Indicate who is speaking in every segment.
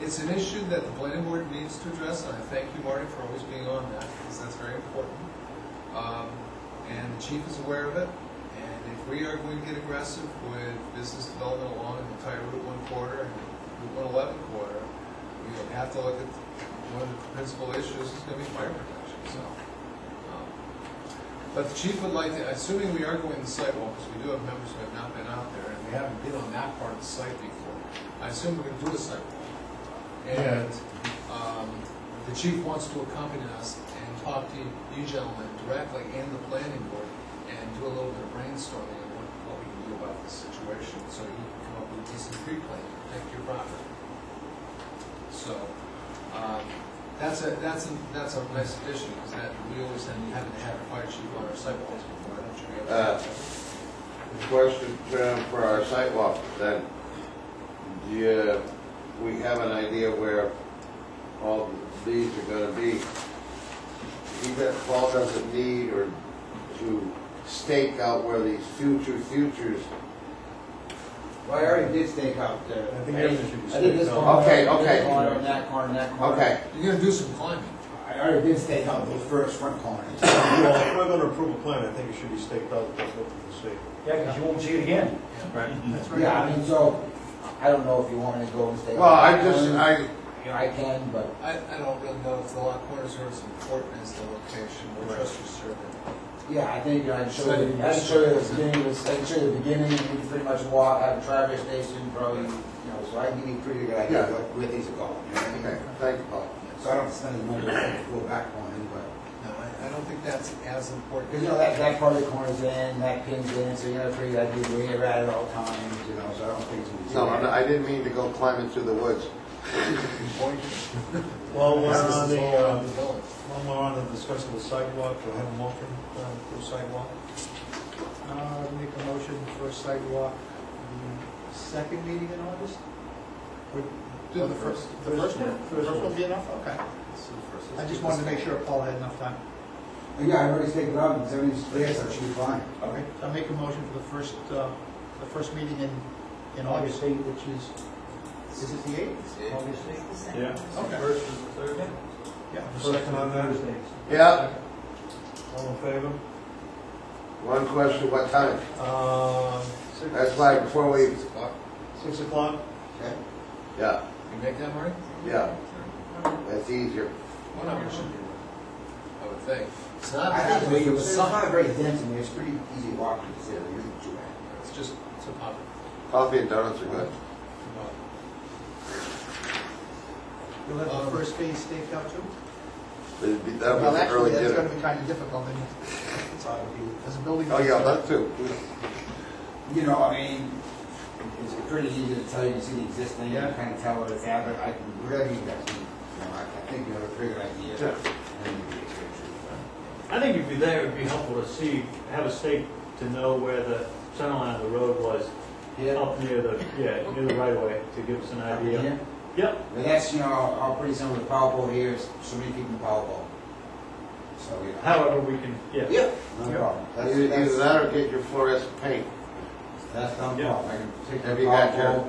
Speaker 1: It's an issue that the planning board needs to address, and I thank you, Marty, for always being on that, because that's very important. Um, And the chief is aware of it, and if we are going to get aggressive with business development along the entire Route One corridor and Route One Eleven corridor, we have to look at, one of the principal issues is gonna be fire protection, so. um, But the chief would like to, assuming we are going to sidewalks, we do have members who have not been out there, and we haven't been on that part of the site before. I assume we're gonna do a sidewalk. And, um, the chief wants to accompany us and talk to you gentlemen directly and the planning board and do a little bit of brainstorming on what, what we can do about this situation, so he can come up with a decent tree plan to protect your property. So, um, that's a, that's a, that's a nice addition, because that, we always had, haven't had a fire chief on our sidewalks before, I'm sure we have.
Speaker 2: Uh, Question um, for our sidewalk, then, do you, we have an idea where all these are gonna be? Even if Paul doesn't need or to stake out where these future futures.
Speaker 3: Well, I already did stake out there.
Speaker 4: I think everything should be
Speaker 3: I did this
Speaker 4: staked out.
Speaker 3: corner,
Speaker 2: Okay,
Speaker 3: this
Speaker 2: okay.
Speaker 3: corner, and that corner, and that corner.
Speaker 2: Okay,
Speaker 1: You're gonna do some climbing.
Speaker 3: I already did stake out those first front corners.
Speaker 4: Well, if we're gonna approve a plan, I think it should be staked out, that's what we state.
Speaker 5: Yeah, because you won't see it again.
Speaker 1: Right.
Speaker 3: Yeah, I mean, so, I don't know if you want me to go and stake.
Speaker 2: well, I
Speaker 3: out
Speaker 2: just,
Speaker 3: corners.
Speaker 2: I,
Speaker 3: You know, I can, but
Speaker 1: I, I don't really know if the lot corners are as important as the location or just your survey.
Speaker 3: Yeah, I think, you know, I'd show you, I'd show you the beginning, of the- I'd show you the beginning, and you can pretty much walk, have a traffic station, probably, you know, so I can give you a pretty good idea of what- where these are going, you know what I mean?
Speaker 2: okay, thank you, Paul.
Speaker 3: So I don't spend as much as I go back on it, but,
Speaker 1: No, I, I don't think that's as important.
Speaker 3: because, you know, that, that part of the corner's in, that pin's in, so you got a pretty good idea where you're at at all times, you know, so I don't think it's.
Speaker 2: No, I'm not- I didn't mean to go climbing through the woods.
Speaker 1: Point.
Speaker 4: Well, we're
Speaker 1: This is
Speaker 4: on the,
Speaker 1: all
Speaker 4: uh,
Speaker 1: about the um, village.
Speaker 4: one more on the discussion of the sidewalk, do I have a motion uh, for the sidewalk?
Speaker 6: Uh, make a motion for a sidewalk, the second meeting in August? Or-
Speaker 1: Do
Speaker 6: or
Speaker 1: the first.
Speaker 6: The first one?
Speaker 4: First
Speaker 6: First
Speaker 4: one.
Speaker 6: one be enough? Okay. I just wanted to make sure Paul had enough time.
Speaker 3: Yeah, I already staked it out, and everything's clear, so it should be fine.
Speaker 6: Okay. I make a motion for the first, uh, the first meeting in, in August, which is, is it the eighth?
Speaker 5: Obviously.
Speaker 4: Yeah.
Speaker 6: Okay.
Speaker 4: First and third?
Speaker 6: Yeah.
Speaker 4: Second on that,
Speaker 5: Thursdays.
Speaker 2: Yeah,
Speaker 4: all in favor?
Speaker 2: one question, what time?
Speaker 4: Uh, six-
Speaker 2: That's why before we,
Speaker 1: Six o'clock.
Speaker 4: Six o'clock?
Speaker 2: yeah,
Speaker 1: You make that, Marty?
Speaker 2: yeah, that's easier.
Speaker 1: One hour should be enough, I would think. It's not.
Speaker 3: I think it's-
Speaker 1: it was
Speaker 3: it's
Speaker 1: something.
Speaker 3: not very dense in there, it's pretty easy to walk, it's, there, it isn't too bad.
Speaker 1: It's just, it's a pop.
Speaker 2: Coffee and donuts are good.
Speaker 6: You'll have
Speaker 1: Um,
Speaker 6: the first phase staked out too?
Speaker 2: It'd be- That
Speaker 6: Well,
Speaker 2: was an
Speaker 6: actually,
Speaker 2: early
Speaker 6: that's
Speaker 2: dinner.
Speaker 6: gonna be kind of difficult, and it's out of you, as a building.
Speaker 2: Oh, yeah, that too.
Speaker 3: You know, I mean, it's pretty easy to tell, you can see the existing, you can kind of tell what it's at, but I can, whatever you guys need, you know, I I think you have a pretty good idea. And you can get your-
Speaker 7: I think if you're there, it'd be helpful to see, have a stake to know where the center line of the road was,
Speaker 3: Yeah.
Speaker 7: up near the, yeah, near the right of way, to give us an idea.
Speaker 3: Yeah.
Speaker 7: Yep,
Speaker 3: But that's, you know, how pretty some of the power pole here is, so many people in power pole. So, you know.
Speaker 7: however we can, yeah.
Speaker 3: No problem. That's,
Speaker 2: Either either
Speaker 3: that's,
Speaker 2: that or get your fluorescent paint.
Speaker 3: that's no
Speaker 7: Yeah.
Speaker 3: problem, I can take
Speaker 2: Have
Speaker 3: the
Speaker 2: you got
Speaker 3: power pole,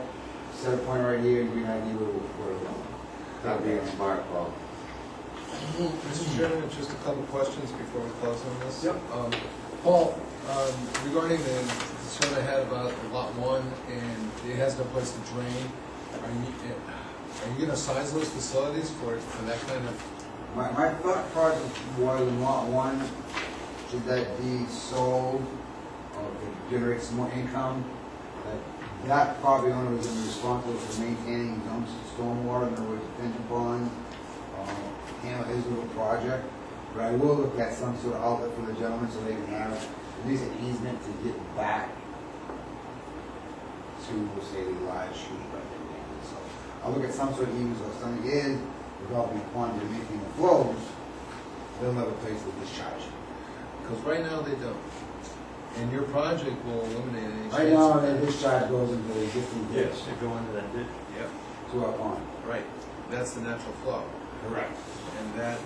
Speaker 3: set a point right here, and you can idea where we're going.
Speaker 2: That'd be a smart call.
Speaker 1: Mr. Chairman, just a couple of questions before we close on this.
Speaker 7: Yep.
Speaker 1: Um, Paul, um, regarding the concern I had about lot one and it has no place to drain, are you, are you gonna size those facilities for, for that kind of,
Speaker 3: My, my thought process was lot one, should that be sold or could generate some more income? That- That property owner was responsible for maintaining his own stormwater, in other words, pension bond, uh, handle his little project. But I will look at some sort of outlet for the gentleman so they can have at least an easement to get back to, say, the live shoot right there. So I'll look at some sort of easement or something in developing quantity of making the flows, they'll have a place to discharge.
Speaker 1: because right now they don't. And your project will eliminate any chance.
Speaker 3: Right now, that discharge goes into the existing ditch
Speaker 7: Yes, to go into that ditch.
Speaker 1: Yep,
Speaker 3: to our pond.
Speaker 1: right, that's the natural flow,
Speaker 3: Correct.
Speaker 1: and that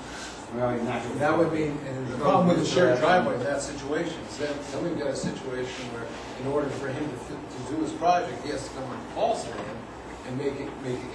Speaker 3: Well, natural.
Speaker 1: That would mean, and the problem with the shared driveway in that situation is that, then we've got a situation where, in order for him to, fit- to do his project, he has to come on Paul's land and make it, make it